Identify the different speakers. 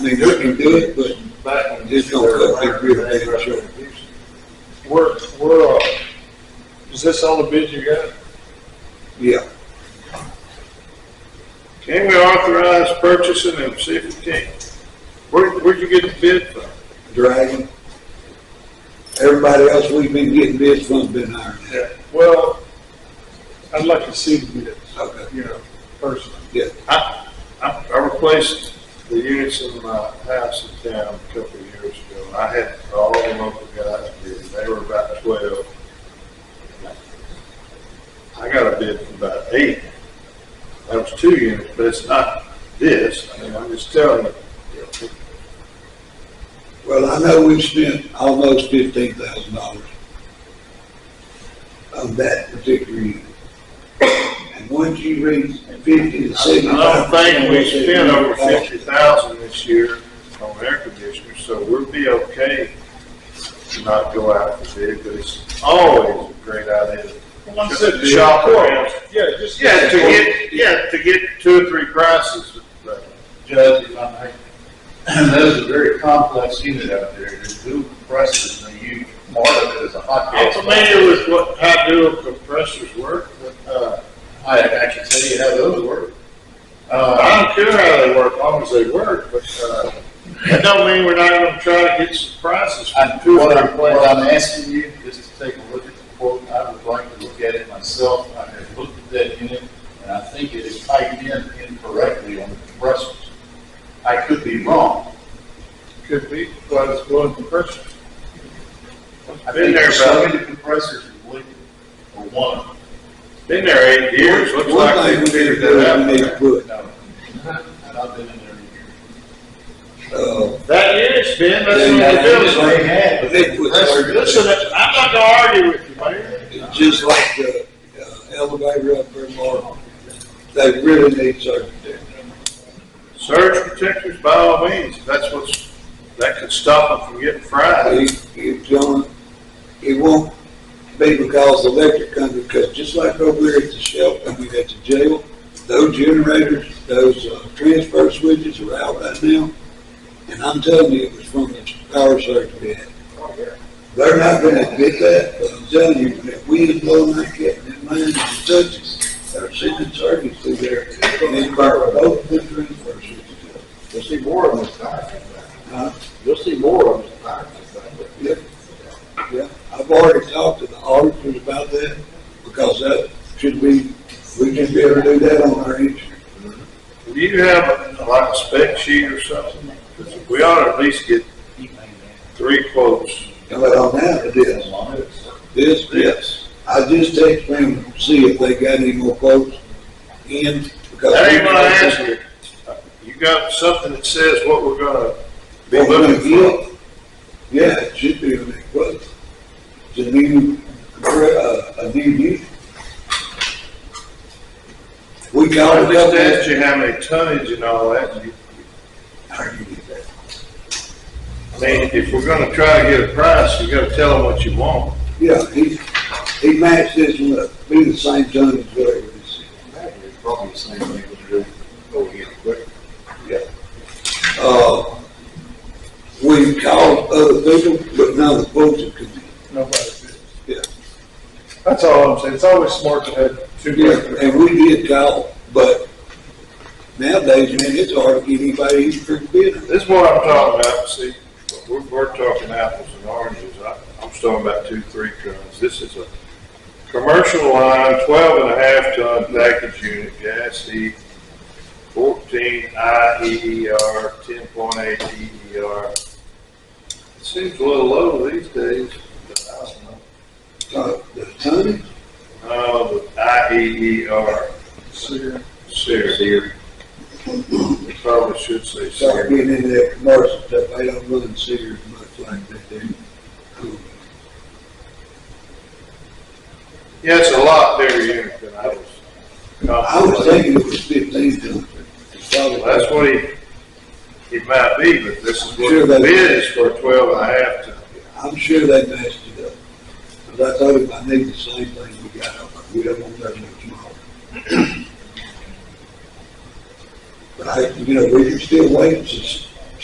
Speaker 1: I mean, we can do it, but
Speaker 2: back in
Speaker 1: It's gonna cut big real big, sure.
Speaker 2: We're, we're, uh, is this all the bids you got?
Speaker 1: yeah,
Speaker 2: Can we authorize purchasing of safety tank? Where, where'd you get the bid from?
Speaker 1: Dragon. Everybody else we've been getting bids from's been ironed out.
Speaker 2: Well, I'd like to see the bids,
Speaker 1: Okay,
Speaker 2: you know, personally.
Speaker 1: yeah,
Speaker 2: I, I, I replaced the units in my house in town a couple of years ago. I had all the local guys bid, they were about twelve. I got a bid for about eight. That was two units, but it's not this, I mean, I'm just telling you.
Speaker 1: well, I know we've spent almost fifteen thousand dollars on that particular unit. And once you reach fifty to
Speaker 2: I
Speaker 1: seventy-five.
Speaker 2: don't think we spent over fifty thousand this year on air conditioners, so we'll be okay to not go out for bid, but it's always a great idea. Just shop around.
Speaker 3: Yeah, just.
Speaker 2: Yeah, to get, yeah, to get two or three prices, but
Speaker 4: Judge, if I may, that is a very complex unit out there, there's two compressors, and you, part of it is a hot
Speaker 2: I'm
Speaker 4: gas.
Speaker 2: familiar with what, how dual compressors work, but, uh,
Speaker 4: I, I can tell you how those work. Uh,
Speaker 2: I don't care how they work, as long as they work, but, uh, that don't mean we're not gonna try to get some prices
Speaker 4: I,
Speaker 2: from two or
Speaker 4: what
Speaker 2: three
Speaker 4: I'm, what
Speaker 2: places.
Speaker 4: I'm asking you is to take a look at the quote, I would like to look at it myself, I have looked at that unit, and I think it is typed in incorrectly on the compressors. I could be wrong.
Speaker 2: Could be, but it's going compressor.
Speaker 4: I
Speaker 2: Been
Speaker 4: think
Speaker 2: there,
Speaker 4: so
Speaker 2: brother.
Speaker 4: many compressors are leaking, or one of them.
Speaker 2: Been there eight years, looks
Speaker 1: One
Speaker 2: like
Speaker 1: thing
Speaker 2: they
Speaker 1: we need to
Speaker 2: figured
Speaker 1: do,
Speaker 2: that
Speaker 1: we need
Speaker 2: out.
Speaker 1: to put,
Speaker 4: No, and I've been in there a year.
Speaker 1: uh,
Speaker 2: That unit's been, that's
Speaker 1: Yeah,
Speaker 2: what
Speaker 1: yeah,
Speaker 2: the building's
Speaker 1: yeah.
Speaker 2: like.
Speaker 4: had,
Speaker 1: but they put-
Speaker 2: Listen, I'm not gonna argue with you, man.
Speaker 1: It's just like the uh, elevator up there, Mark. They really need certain things.
Speaker 2: Surge protectors, by all means, if that's what's, that could stop them from getting fried.
Speaker 1: It, it, John, it won't be because the electric company, because just like over here at the shelter, I mean, at the jail, those generators, those, uh, transfer switches are out right now. And I'm telling you, it was from the power surge we had. They're not gonna admit that, but I'm telling you, when that wind blowing like that, and that line just touches, they're sending surges through there. And they burn both the transfer switches. up.
Speaker 3: You'll see more of them as time.
Speaker 1: Huh?
Speaker 3: You'll see more of them as time.
Speaker 1: Yep. Yeah, I've already talked to the auditors about that, because that should be, we can be able to do that on our insurance.
Speaker 2: Do you have a- like a spec sheet or something? 'Cause we ought to at least get three quotes.
Speaker 1: But on that, it is, this, yes. I just text them, to see if they got any more quotes in, because.
Speaker 2: That ain't what I asked you. You got something that says what we're gonna be
Speaker 1: What we're
Speaker 2: looking
Speaker 1: gonna
Speaker 2: for?
Speaker 1: get, yeah, it should be on that quote. It's a new, uh, a new unit. We
Speaker 2: I
Speaker 1: got a
Speaker 2: just
Speaker 1: couple.
Speaker 2: asked you how many tonnage and all that. You-
Speaker 1: How do you get that?
Speaker 2: I mean, if we're gonna try to get a price, you gotta tell them what you want.
Speaker 1: Yeah, he, he matched this one up, be the same ton as whatever this is.
Speaker 3: Probably the oh, same thing we do over here, but
Speaker 1: Uh, we called other people, but none of the folks have come in.
Speaker 3: nobody bids.
Speaker 1: Yeah.
Speaker 3: That's all I'm saying, it's always smart to have two
Speaker 1: Yeah,
Speaker 3: bids.
Speaker 1: and we did call, but nowadays, man, it's hard to get anybody even for a bid.
Speaker 2: This is what I'm talking about, see, we're, we're talking apples and oranges, I, I'm just talking about two, three tons, this is a commercial line, twelve and a half ton package unit, gas heat, fourteen I E E R, ten point eight E E R. It Seems a little low these days, but I don't know.
Speaker 1: Uh, the tonnage,
Speaker 2: Uh, the I E E R,
Speaker 3: Sear.
Speaker 2: SEER. SEER. Probably should say
Speaker 1: start
Speaker 2: SEER.
Speaker 1: getting into that commercial stuff, they don't run Sears much like that, they do.
Speaker 2: Yeah, it's a lot bigger unit than I was.
Speaker 1: I was thinking it was fifteen ton.
Speaker 2: Well, that's what he, it might be, but this is
Speaker 1: Sure,
Speaker 2: what the
Speaker 1: that's-
Speaker 2: bid is for twelve and a half ton.
Speaker 1: I'm sure they messed it up. But I told him I need the same thing we got up, we don't want that much more. But I, you know, we can still wait, and s-